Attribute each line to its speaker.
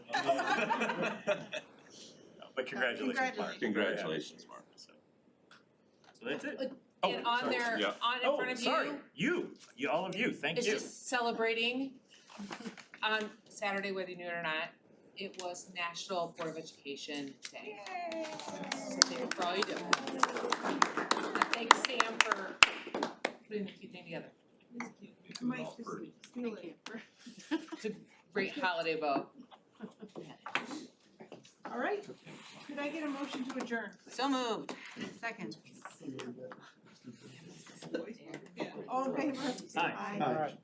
Speaker 1: Congratulations, Mark.
Speaker 2: Congratulations, Mark.
Speaker 1: So so that's it.
Speaker 2: Oh,
Speaker 3: And on
Speaker 2: sorry.
Speaker 3: their,
Speaker 2: Yeah.
Speaker 3: on in front of
Speaker 1: Oh, sorry,
Speaker 3: you,
Speaker 1: you, you, all of you, thank
Speaker 3: is
Speaker 1: you.
Speaker 3: just celebrating on Saturday, whether you knew it or not, it was National Board of Education Day. So there for all you do. And Thanks Sam for putting the cute thing together.
Speaker 2: Making it
Speaker 4: Mike,
Speaker 2: all
Speaker 4: just
Speaker 2: pretty.
Speaker 4: steal it.
Speaker 3: Great holiday vote.
Speaker 4: All right, could I get a motion to adjourn?
Speaker 5: So moved.
Speaker 4: Second. All in favor?
Speaker 1: Hi.
Speaker 4: Aye.